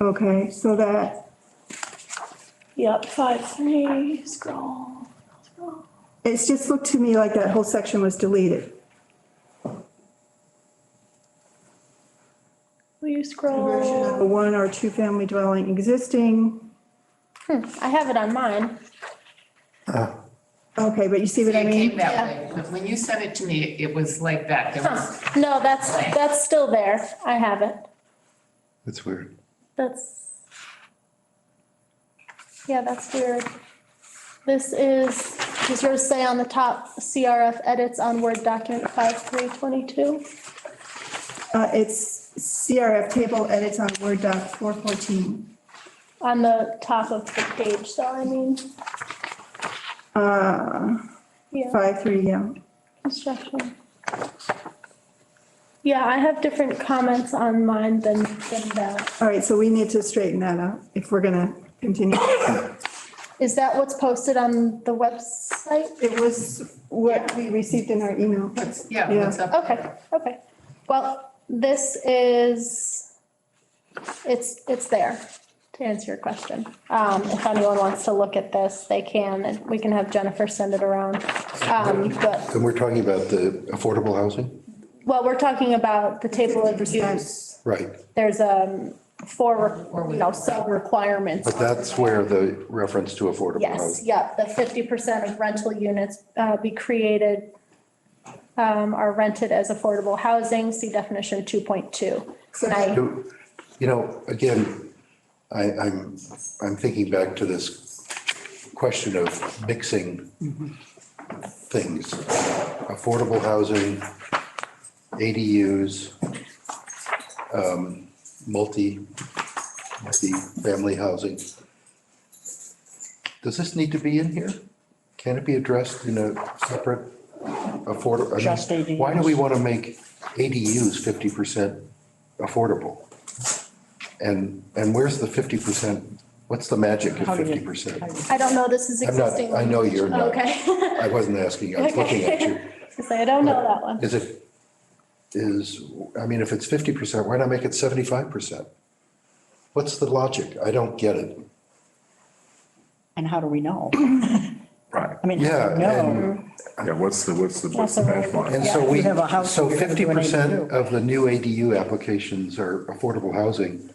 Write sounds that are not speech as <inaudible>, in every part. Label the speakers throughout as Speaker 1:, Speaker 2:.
Speaker 1: Okay, so that,
Speaker 2: Yep, five, three, scroll, scroll.
Speaker 1: it's just looked to me like that whole section was deleted.
Speaker 2: Will you
Speaker 1: Conversion of a
Speaker 2: scroll?
Speaker 1: one or two family dwelling existing.
Speaker 2: Hmm, I have it on mine.
Speaker 1: Okay, but you see
Speaker 3: It
Speaker 1: what I
Speaker 3: came
Speaker 1: mean?
Speaker 3: that way, because when you sent it to me, it was like that. There was,
Speaker 2: Huh, No, that's, that's still there. I have it.
Speaker 4: That's weird.
Speaker 2: That's. Yeah, that's weird. This is, does yours say on the top CRF edits on Word document five three twenty-two?
Speaker 1: Uh, it's CRF table edits on Word doc four fourteen.
Speaker 2: On the top of the page, so I mean,
Speaker 1: Uh,
Speaker 2: yeah,
Speaker 1: five, three, yeah.
Speaker 2: construction. Yeah, I have different comments on mine than, than that.
Speaker 1: All right, so we need to straighten that out if we're gonna continue.
Speaker 2: Is that what's posted on the website?
Speaker 1: It was what we received in our email.
Speaker 3: what's- yeah, what's up?
Speaker 2: Okay, okay. Well, this is, it's, it's there to answer your question. Um, if anyone wants to look at this, they can, and we can have Jennifer send it around. Um, but,
Speaker 4: And we're talking about the affordable housing?
Speaker 2: well, we're talking about the table of use.
Speaker 4: Right,
Speaker 2: There's, um, four, you know, sub requirements.
Speaker 4: but that's where the reference to affordable
Speaker 2: Yes,
Speaker 4: housing.
Speaker 2: yep, the fifty percent of rental units uh, be created, um, are rented as affordable housing, see definition two point two. And I,
Speaker 4: Do- You know, again, I, I'm, I'm thinking back to this question of mixing things. Affordable housing, ADUs, um, multi, multi-family housing. Does this need to be in here? Can it be addressed in a separate affordable?
Speaker 5: Just ADUs.
Speaker 4: Why do we want to make ADUs fifty percent affordable? And, and where's the fifty percent? What's the magic of
Speaker 5: How did
Speaker 4: fifty
Speaker 5: it-
Speaker 4: percent?
Speaker 2: I don't know this is
Speaker 4: I'm not,
Speaker 2: existing.
Speaker 4: I know you're not.
Speaker 2: Okay.
Speaker 4: I wasn't asking, I was looking at you.
Speaker 2: <laughs> Okay. Just say, I don't know that one.
Speaker 4: Is it, is, I mean, if it's fifty percent, why not make it seventy-five percent? What's the logic? I don't get it.
Speaker 5: And how do we know?
Speaker 6: Right.
Speaker 5: I mean, how do we
Speaker 4: Yeah,
Speaker 5: know?
Speaker 6: Yeah, what's the, what's the, what's the
Speaker 2: That's a really
Speaker 6: benchmark?
Speaker 4: And
Speaker 5: Yeah,
Speaker 4: so
Speaker 5: if you
Speaker 4: we,
Speaker 5: have a house,
Speaker 4: so
Speaker 5: you're gonna
Speaker 4: fifty
Speaker 5: do an
Speaker 4: percent
Speaker 5: ADU.
Speaker 4: of the new ADU applications are affordable housing.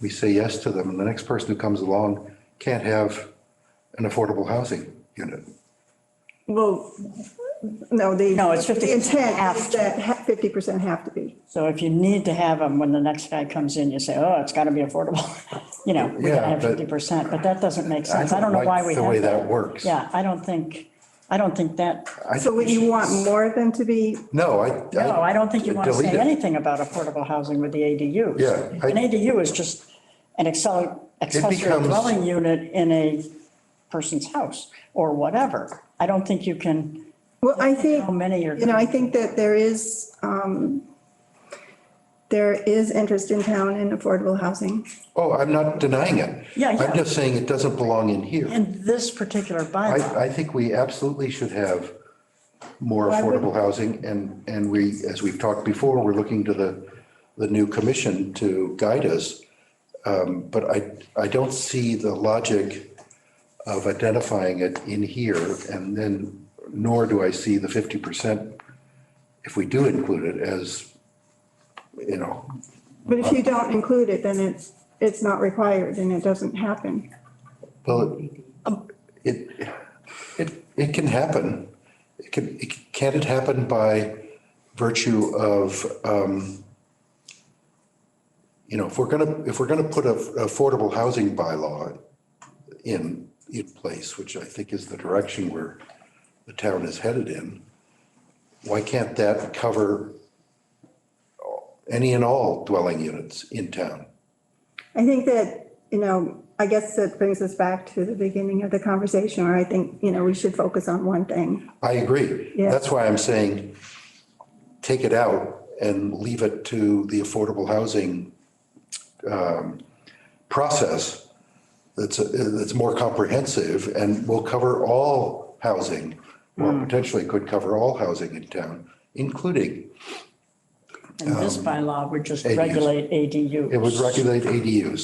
Speaker 4: We say yes to them, and the next person who comes along can't have an affordable housing unit.
Speaker 1: Well, no, the.
Speaker 5: No, it's 50%
Speaker 1: The intent is
Speaker 5: have to.
Speaker 1: that fifty percent have to be.
Speaker 5: So if you need to have them, when the next guy comes in, you say, oh, it's gotta be affordable. <laughs> You know, we
Speaker 4: Yeah,
Speaker 5: gotta have
Speaker 4: but-
Speaker 5: fifty percent, but that doesn't make sense. I don't know
Speaker 4: like
Speaker 5: why we
Speaker 4: The way
Speaker 5: have
Speaker 4: that
Speaker 5: that.
Speaker 4: works.
Speaker 5: Yeah, I don't think, I don't think that,
Speaker 4: I-
Speaker 1: So would you want more of them to be,
Speaker 4: No, I.
Speaker 5: no, I don't think you wanna
Speaker 4: Delete
Speaker 5: say
Speaker 4: it.
Speaker 5: anything about affordable housing with the ADU.
Speaker 4: Yeah, I-
Speaker 5: An ADU is just an accel- accessory
Speaker 4: becomes-
Speaker 5: dwelling unit in a person's house or whatever. I don't think you can,
Speaker 1: well, I think.
Speaker 5: how many are.
Speaker 1: You know, I think that there is, um, there is interest in town in affordable housing.
Speaker 4: Oh, I'm not denying it.
Speaker 5: Yeah,
Speaker 4: I'm
Speaker 5: yeah.
Speaker 4: just saying it doesn't belong in here.
Speaker 5: In this particular bylaw.
Speaker 4: I, I think we absolutely should have more
Speaker 1: Why wouldn't-
Speaker 4: affordable housing and, and we, as we've talked before, we're looking to the, the new commission to guide us. Um, But I, I don't see the logic of identifying it in here and then, nor do I see the fifty percent, if we do include it as, you know,
Speaker 1: But if you don't include it, then it's, it's not required and it doesn't happen.
Speaker 4: Well, it, it, it can happen. It can, it- can it happen by virtue of, um, you know, if we're gonna, if we're gonna put a affordable housing bylaw in, in place, which I think is the direction where the town is headed in, why can't that cover any and all dwelling units in town?
Speaker 1: I think that, you know, I guess that brings us back to the beginning of the conversation where I think, you know, we should focus on one thing.
Speaker 4: I agree.
Speaker 1: Yeah.
Speaker 4: That's why I'm saying, take it out and leave it to the affordable housing um, process that's, that's more comprehensive and will cover all housing, or potentially could cover all housing in town, including,
Speaker 5: In this bylaw, we just
Speaker 4: ADUs.
Speaker 5: regulate ADUs.
Speaker 4: it would regulate ADUs.